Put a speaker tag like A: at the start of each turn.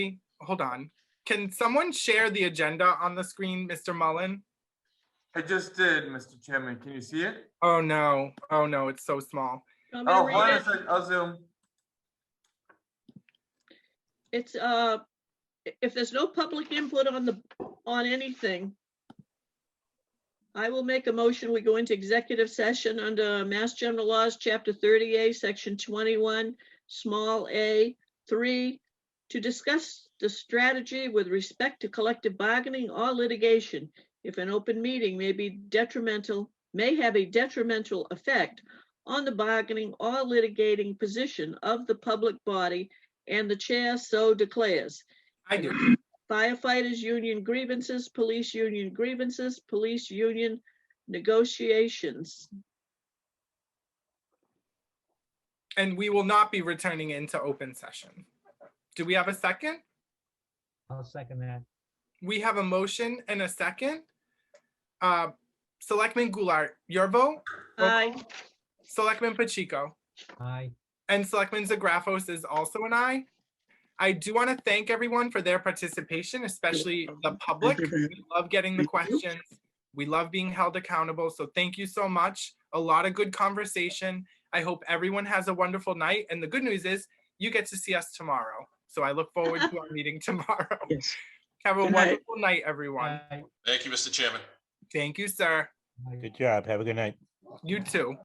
A: hold on. Can someone share the agenda on the screen, Mr. Mullen?
B: I just did, Mr. Chairman. Can you see it?
A: Oh, no. Oh, no, it's so small.
C: I'm
B: Oh,
C: gonna
B: hold on
C: read
B: a
C: it.
B: sec. I'll zoom.
C: It's, uh, i- if there's no public input on the, on anything, I will make a motion. We go into executive session under Mass General Laws, Chapter 30A, Section 21, Small A, 3, to discuss the strategy with respect to collective bargaining or litigation. If an open meeting may be detrimental, may have a detrimental effect on the bargaining or litigating position of the public body and the chair so declares.
A: I do.
C: Firefighters union grievances, police union grievances, police union negotiations.
A: And we will not be returning into open session. Do we have a second?
D: I'll second that.
A: We have a motion and a second. Uh, Selectman Goulart, your vote? Roll
C: Aye.
A: call. Selectman Pacheco?
D: Aye.
A: And Selectman Zagrafos is also an aye. I do want to thank everyone for their participation, especially the public. We love getting the questions. We love being held accountable. So thank you so much. A lot of good conversation. I hope everyone has a wonderful night. And the good news is you get to see us tomorrow. So I look forward to our meeting tomorrow.
C: Yes.
A: Have a
C: Good night.
A: wonderful night, everyone.
D: Aye.
E: Thank you, Mr. Chairman.
A: Thank you, sir.
D: Aye.
F: Good job. Have a good night.
A: You too.